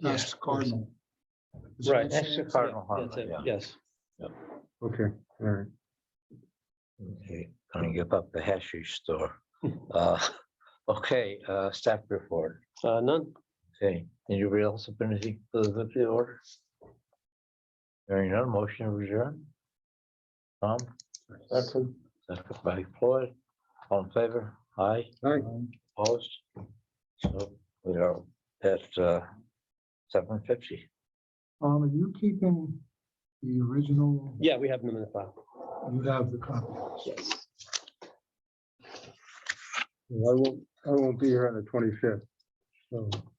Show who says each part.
Speaker 1: Yes,
Speaker 2: That's cardinal. Is that
Speaker 3: Right.
Speaker 2: what
Speaker 3: That's
Speaker 2: you're saying?
Speaker 3: Cardinal
Speaker 4: That's it,
Speaker 3: Harbor,
Speaker 4: Yes,
Speaker 5: Okay, all right.
Speaker 3: Okay, Gonna give up the hashish store. Uh, okay, uh, staff report.
Speaker 4: uh, none.
Speaker 3: Okay, anybody else have anything for the the order? Hearing none, motion to adjourn. Tom,
Speaker 2: Second.
Speaker 3: second by Floyd, all in favor, aye,
Speaker 5: All right,
Speaker 2: Um,
Speaker 3: opposed? So we are at, uh, seven fifty.
Speaker 2: Um, are you keeping the original?
Speaker 4: Yeah, we have them in the file.
Speaker 2: You have the copy.
Speaker 4: Yes.
Speaker 5: well, I won't, I won't be here on the twenty-fifth. So